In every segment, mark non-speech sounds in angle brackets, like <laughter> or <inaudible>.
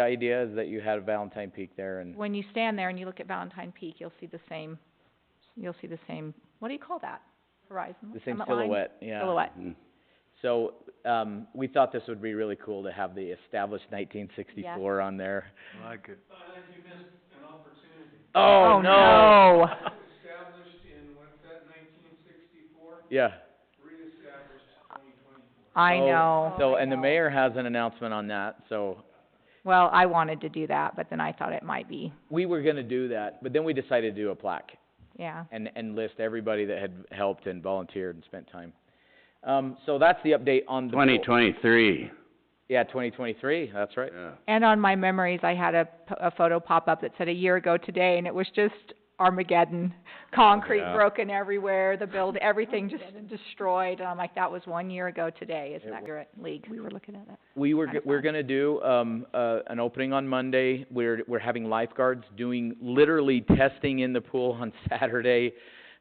The idea is that you had a Valentine Peak there and When you stand there and you look at Valentine Peak, you'll see the same, you'll see the same, what do you call that? Horizon? the same summit line? silhouette, yeah. Mm-hmm. Silhouette. So, um, we thought this would be really cool to have the established nineteen sixty-four on there. Like it. Oh, no. Yeah. I So- know. Oh, So, and the mayor has an announcement on that, so Well, I wanted to do that, but then I thought it might be, we were gonna do that, but then we decided to do a plaque yeah. and, and list everybody that had helped and volunteered and spent time. Um, so that's the update on the. Twenty twenty-three, Yeah, twenty twenty-three, that's right. yeah. And on my memories, I had a, p- a photo pop up that said a year ago today, and it was just Armageddon. Concrete Yeah. broken everywhere, the <laughs> build, everything just destroyed, and I'm like, that was one year ago today, isn't that correct, league? We were looking at that. We were, Kinda go- we're fun. gonna do, um, uh, an opening on Monday, we're, we're having lifeguards doing, literally testing in the pool on <laughs> Saturday.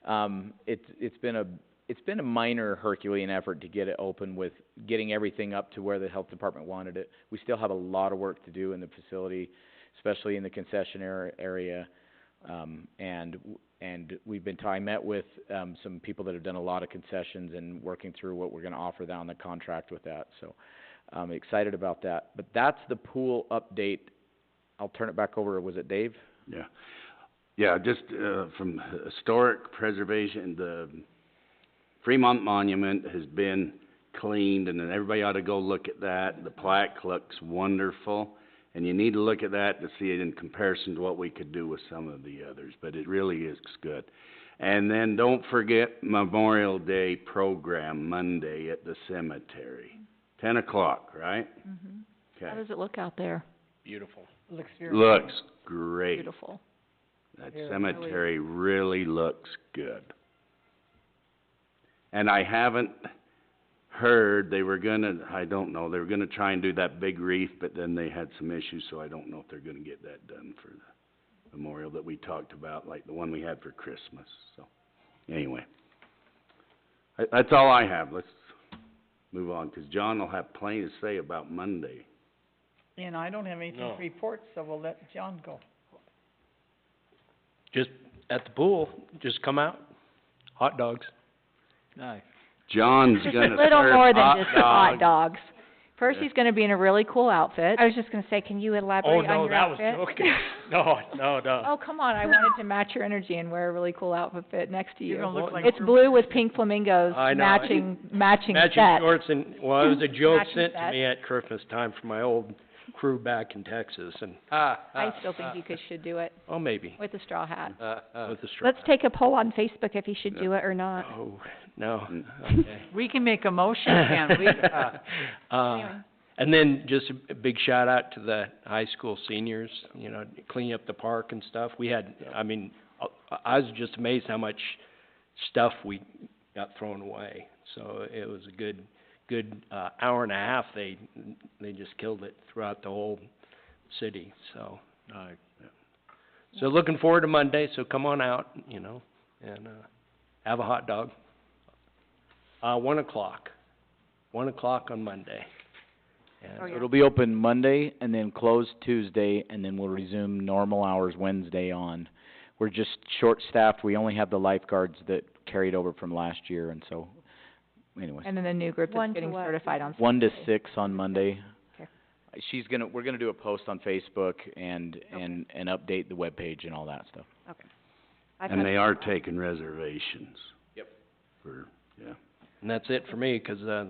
Um, it's, it's been a, it's been a minor Herculean effort to get it open with getting everything up to where the health department wanted it. We still have a lot of work to do in the facility, especially in the concession ar- area. Um, and, w- and we've been, t- I met with, um, some people that have done a lot of concessions and working through what we're gonna offer down the contract with that, so. I'm excited about that. But that's the pool update. I'll turn it back over, was it Dave? Yeah, yeah, just, uh, from historic preservation, the Fremont Monument has been cleaned, and then everybody ought to go look at that. The plaque looks wonderful, and you need to look at that to see it in comparison to what we could do with some of the others, but it really is good. And then don't forget Memorial Day program Monday at the cemetery, ten o'clock, right? Mhm. How Okay, does it look out there? looks great. Beautiful. That cemetery really looks good. And I haven't heard, they were gonna, I don't know, they were gonna try and do that big wreath, but then they had some issues, so I don't know if they're gonna get that done for the memorial that we talked about, like the one we had for Christmas, so, anyway. I- That's all I have, let's move on, 'cause John will have plenty to say about Monday. And I don't have anything to report, so we'll let John go. Just at the pool, just come out, hot dogs. Nice. <laughs> John's Just gonna a little serve more hot than just the hot dogs. dogs. First, he's gonna be in a really cool outfit. I was just gonna say, can you elaborate Oh, on your no, that was, outfit? <laughs> okay, no, no, no. Oh, come on, I wanted to match your energy and wear a really cool outfit next to you. You're gonna look like It's blue with pink flamingos, I know, I- matching, matching set. Matching shorts and, well, <laughs> it was a joke Matching sent to set. me at Christmas time from my old crew back in Texas and, I still think you could, should do it oh, maybe, with a straw hat. with the straw. Let's take a poll on Facebook if he should do it or not. Oh, no, Hmm. Mm. okay. We can make a motion, <coughs> can't we? <laughs> Uh, and then just a- a big shout out to the high school seniors, you know, cleaning up the park and stuff. We had, I mean, I, I was just amazed how much stuff we got thrown away. So it was a good, good, uh, hour and a half. They, they just killed it throughout the whole city, so. Nice. So looking forward to Monday, so come on out, you know, and, uh, have a hot dog. Uh, one o'clock, one o'clock on Monday. And- Oh, yeah. It'll be open Monday and then closed Tuesday, and then we'll resume normal hours Wednesday on. We're just short-staffed, we only have the lifeguards that carried over from last year, and so, anyways. And then the new group One that's to getting what? certified on One to six on Monday. Okay. She's gonna, we're gonna do a post on Facebook and, and, and update the webpage and all that stuff. I've And had- they are taking reservations. Yep. For, yeah. And that's it for me, 'cause, uh,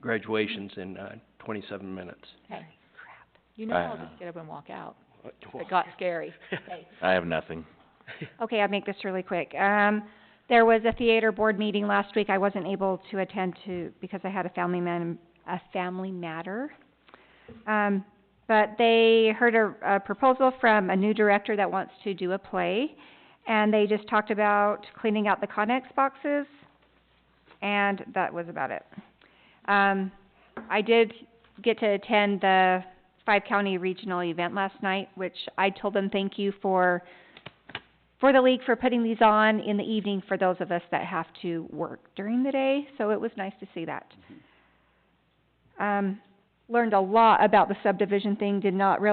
graduation's in, uh, twenty-seven minutes. Hey, You know I- I'll just get up and walk out. It got scary. Hey, I have nothing. Okay, I'll make this really quick. Um, there was a theater board meeting last week. I wasn't able to attend to, because I had a family man, a family matter. Um, but they heard a, a proposal from a new director that wants to do a play, and they just talked about cleaning out the Connex boxes, and that was about it. Um, I did get to attend the five county regional event last night, which I told them thank you for for the league for putting these on in the evening for those of us that have to work during the day, so it was nice to see that. Um, learned a lot about the subdivision thing, did not realize